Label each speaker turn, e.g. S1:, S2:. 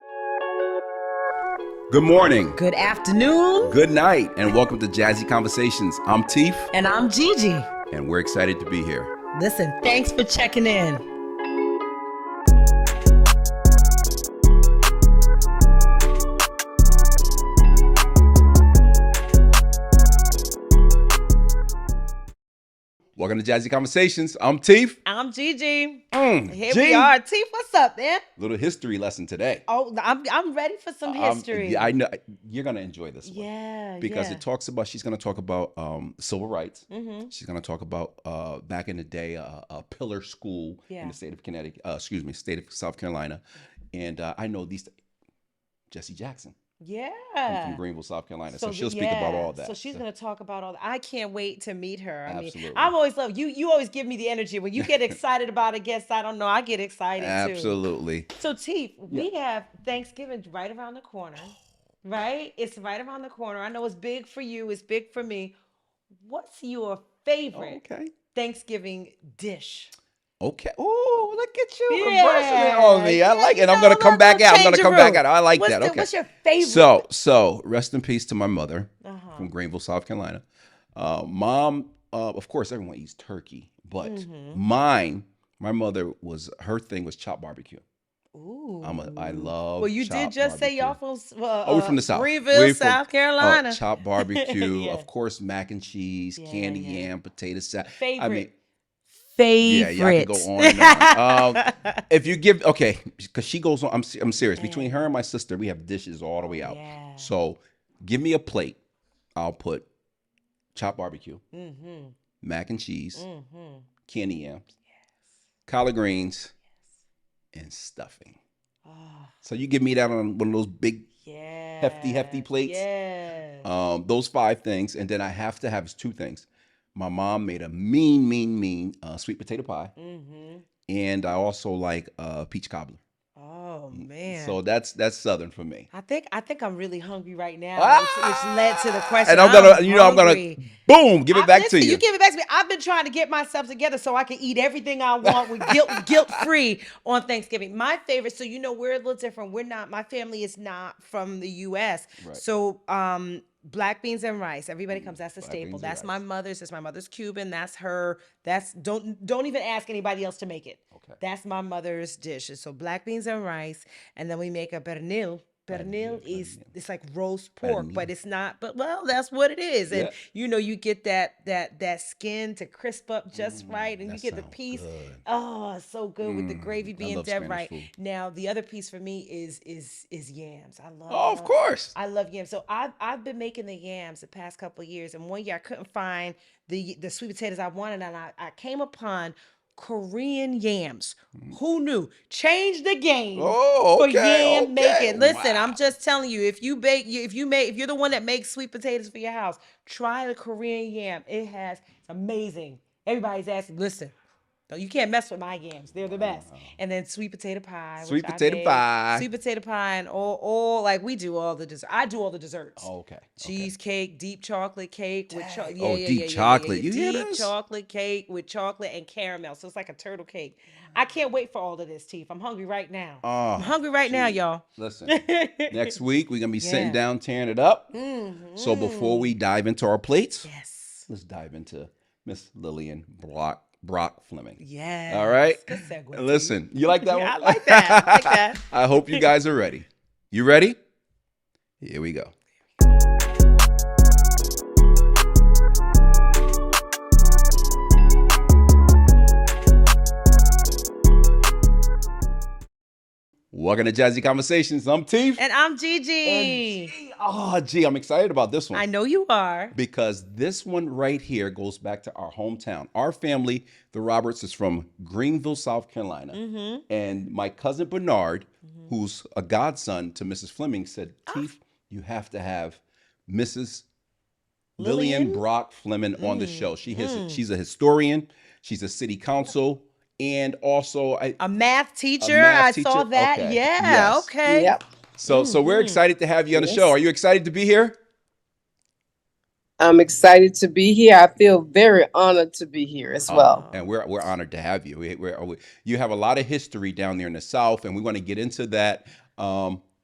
S1: Good morning,
S2: Good afternoon.
S1: good night, and welcome to Jazzy Conversations. I'm Teef,
S2: And I'm Gigi.
S1: and we're excited to be here.
S2: Listen, thanks for checking in.
S1: Welcome to Jazzy Conversations. I'm Teef.
S2: I'm Gigi.
S1: Mm,
S2: Here
S1: G.
S2: we are. Teeth, what's up, man?
S1: Little history lesson today.
S2: Oh, I'm, I'm ready for some
S1: Um,
S2: history.
S1: yeah, I know you're gonna enjoy this one
S2: yeah.
S1: because
S2: yeah.
S1: it talks about. She's gonna talk about um, civil rights.
S2: Mm-hmm.
S1: She's gonna talk about uh, back in the day uh, a pillar school in
S2: Yeah.
S1: the state of Connecticut. Uh, excuse me, state of South Carolina, and uh, I know these. Jesse Jackson I'm
S2: Yeah.
S1: from Greenville, South Carolina, so,
S2: th-
S1: she'll speak about
S2: yeah.
S1: all that.
S2: So she's gonna talk about all that. I can't wait to meet her. I
S1: Absolutely.
S2: mean, I'm always love you. You always give me the energy when you get excited about a guest. I don't know. I get excited too.
S1: Absolutely.
S2: So, Teef, we have Thanksgiving right around the corner, right? It's right around the corner. I know it's big for you, it's big for me. What's your favorite
S1: Okay.
S2: Thanksgiving dish?
S1: Okay. Oh, look at you. Impressive on me. I
S2: yeah,
S1: like it.
S2: you
S1: I'm
S2: know,
S1: going
S2: I'm
S1: to come
S2: not
S1: back
S2: gonna
S1: out. I'm going
S2: change
S1: to
S2: your
S1: come back
S2: rules.
S1: out. I like
S2: what's
S1: that.
S2: the-
S1: okay.
S2: What's your favorite?
S1: So, so rest in peace to my mother
S2: Uh-huh.
S1: from Greenville, South Carolina. Uh, mom, uh, of course, everyone eats turkey, but
S2: Mhm.
S1: mine, my mother was her thing was chopped barbecue. I'm a, I
S2: Ooh.
S1: love.
S2: Well, you did
S1: chopped
S2: just say y'all
S1: barbecue.
S2: from s- uh,
S1: Oh, we're
S2: uh,
S1: from the South.
S2: Greenville,
S1: We're from-
S2: South Carolina.
S1: Uh, chopped barbecue,
S2: Yeah.
S1: of course, mac and cheese,
S2: Yeah, yeah,
S1: candy
S2: yeah.
S1: yam, potato salad.
S2: favorite.
S1: I mean, Yeah,
S2: favorite.
S1: yeah, I could go on and on. Um, if you give, okay, because she goes on. I'm, se- I'm serious. Between her and my sister, we have dishes all the way out.
S2: Yeah.
S1: So, give me a plate. I'll put chopped barbecue,
S2: mm-hmm.
S1: mac and cheese,
S2: Mm-hmm.
S1: candy yams, collard greens, and stuffing.
S2: Oh,
S1: So you give me that on one of those big,
S2: yeah.
S1: hefty plates.
S2: Yeah.
S1: um, those five things, and then I have to have two things. My mom made a mean, mean, mean uh, sweet potato pie,
S2: mm-hmm.
S1: and I also like uh, peach cobbler.
S2: Oh man.
S1: Mm, So that's that's southern for me.
S2: I think I think I'm really hungry right now, which,
S1: Ah!
S2: which led to the question.
S1: And I'm gonna, you know, I'm gonna,
S2: hungry.
S1: boom, give it
S2: I-
S1: back to
S2: listen,
S1: you.
S2: You give it back to me. I've been trying to get myself together so I can eat everything I want with guilt guilt free on Thanksgiving. My favorite, so you know, we're a little different. We're not. My family is not from the U.S.
S1: Right.
S2: So, um, black beans and rice. Everybody
S1: Mm,
S2: comes. That's a
S1: black
S2: staple.
S1: beans and
S2: That's
S1: rice.
S2: my mother's. That's my mother's Cuban. That's her. That's don't don't even ask anybody else to make it.
S1: okay.
S2: That's my mother's dish. And So black beans and rice, and then we make a pernil. Pernil
S1: Pernil,
S2: is
S1: pernil.
S2: it's like roast pork,
S1: Pernil.
S2: but it's not. But well, that's what it is. And
S1: Yeah.
S2: you know, you get that that that skin to crisp up just right, and you
S1: Mm, Mm-hmm. That
S2: get the
S1: sound
S2: piece.
S1: good. Mm, Mm-hmm.
S2: Oh, it's so good with the gravy
S1: I
S2: being
S1: love
S2: dead
S1: Spanish
S2: right.
S1: food.
S2: Now the other piece for me is is is yams. I love.
S1: Oh, of
S2: love-
S1: course.
S2: I love yams. So I've I've been making the yams the past couple of years, and one year I couldn't find the the sweet potatoes I wanted, and I, I came upon Korean yams. Who knew? Change the game
S1: Oh,
S2: for
S1: okay.
S2: yam
S1: okay.
S2: making. Listen,
S1: Wow.
S2: I'm just telling you, if you bake, you- if you make, if you're the one that makes sweet potatoes for your house, try the Korean yam. It has it's amazing. Everybody's asking. Listen, no, you can't mess with my yams. They're the best. And then sweet potato pie. which
S1: Uh-huh. Sweet
S2: I
S1: potato
S2: made.
S1: pie.
S2: Sweet potato pie and all, all like we do all the dessert. I do all the desserts.
S1: Oh, Okay. okay.
S2: Cheesecake, deep chocolate cake with cho-
S1: Dang.
S2: yeah,
S1: Oh,
S2: yeah, yeah,
S1: deep
S2: yeah, yeah,
S1: chocolate.
S2: Yeah,
S1: You hear
S2: deep
S1: this?
S2: chocolate cake with chocolate and caramel. So it's like a turtle cake. I can't wait for all of this, Teeth. I'm hungry right now.
S1: Oh,
S2: I'm hungry right now,
S1: gee.
S2: y'all.
S1: Listen, next week we're gonna be sitting
S2: Yeah.
S1: down tearing it up. So before
S2: Mhm.
S1: we dive into our plates,
S2: Yes.
S1: let's dive into Miss Lillian Brock Brock Fleming.
S2: Yes.
S1: All right.
S2: Good segue,
S1: And listen, you like that
S2: Yeah, I
S1: one?
S2: like that. I like that.
S1: I hope you guys are ready. You ready? Here we go. Welcome to Jazzy Conversations. I'm Teef.
S2: Teef. And I'm Gigi.
S1: oh, gee, I'm excited about this one
S2: I know you are.
S1: because this one right here goes back to our hometown. Our family, the Roberts, is from Greenville, South Carolina.
S2: Mm-hmm.
S1: And my cousin Bernard, who's a godson to Mrs. Fleming, said, Keith, you have to have Mrs. Lillian,
S2: Lillian?
S1: Brock Fleming on the
S2: Mm,
S1: show. She has,
S2: mm.
S1: She's a historian, she's a city council, and also I,
S2: A math teacher.
S1: math
S2: I saw
S1: teacher?
S2: that.
S1: Okay.
S2: Yeah.
S1: Yes.
S2: Okay.
S3: Yep.
S1: so so we're
S2: Mhm.
S1: excited to have you on the
S3: Yes.
S1: show. Are you excited to be here?
S3: I'm excited to be here. I feel very honored to be here as
S1: Oh,
S3: well.
S1: and we're we're honored to have you. We, we're, we- you have a lot of history down there in the South, and we want to get into that. Um,